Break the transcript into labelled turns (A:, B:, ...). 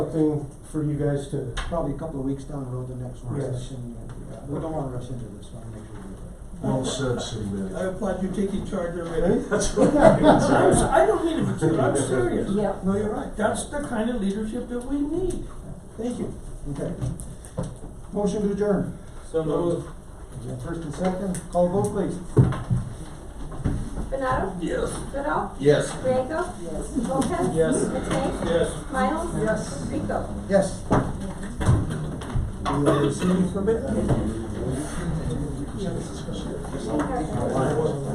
A: something for you guys to,
B: Probably a couple of weeks down the road, the next one
A: Yes.
B: session. yeah. We don't wanna rush into this, wanna make sure we
C: Well said, city
D: I
C: manager.
D: applaud you taking charge already.
C: That's right.
D: I'm s- I don't mean to be cute, I'm serious.
B: do it. Yeah, no, you're right.
D: That's the kind of leadership that we need.
B: Thank you. Okay. Motion to adjourn.
D: So
B: Is that First and second, call vote please.
E: Benado?
D: Yes.
E: Goodall?
C: Yes.
E: Riego? Yes. Lopez?
D: Yes.
E: Matei?
D: Yes.
E: Miles? Yes. Rico?
B: Yes. Do you see any permit?
E: Yes.